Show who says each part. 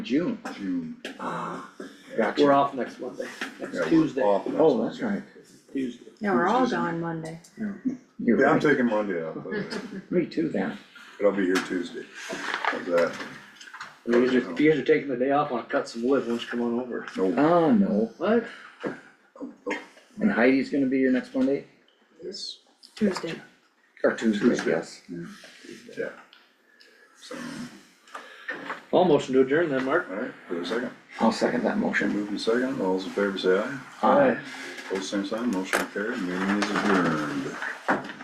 Speaker 1: June.
Speaker 2: June. uh,
Speaker 1: Gotcha. We're off next Monday,
Speaker 2: Yeah,
Speaker 1: next
Speaker 2: we're
Speaker 1: Tuesday.
Speaker 2: off next
Speaker 1: Oh, that's
Speaker 2: Monday.
Speaker 1: right, Tuesday.
Speaker 3: Yeah, we're all gone Monday.
Speaker 1: You're
Speaker 2: Yeah, I'm
Speaker 1: right,
Speaker 2: taking Monday off, but
Speaker 1: me too then.
Speaker 2: but I'll be here Tuesday. How's that?
Speaker 4: You guys are, you guys are taking the day off, wanna cut some wood, why don't you come on over?
Speaker 2: No,
Speaker 1: Oh, no,
Speaker 4: What?
Speaker 1: and Heidi's gonna be here next Monday,
Speaker 2: yes,
Speaker 3: Tuesday.
Speaker 1: or Tuesday,
Speaker 2: Tuesday.
Speaker 1: yes.
Speaker 2: yeah. So,
Speaker 4: I'll motion to adjourn then, Mark.
Speaker 2: all right, for a second.
Speaker 1: I'll second that motion.
Speaker 2: Moving second, all those in favor say aye. Both same sign, motion carried, meeting is adjourned.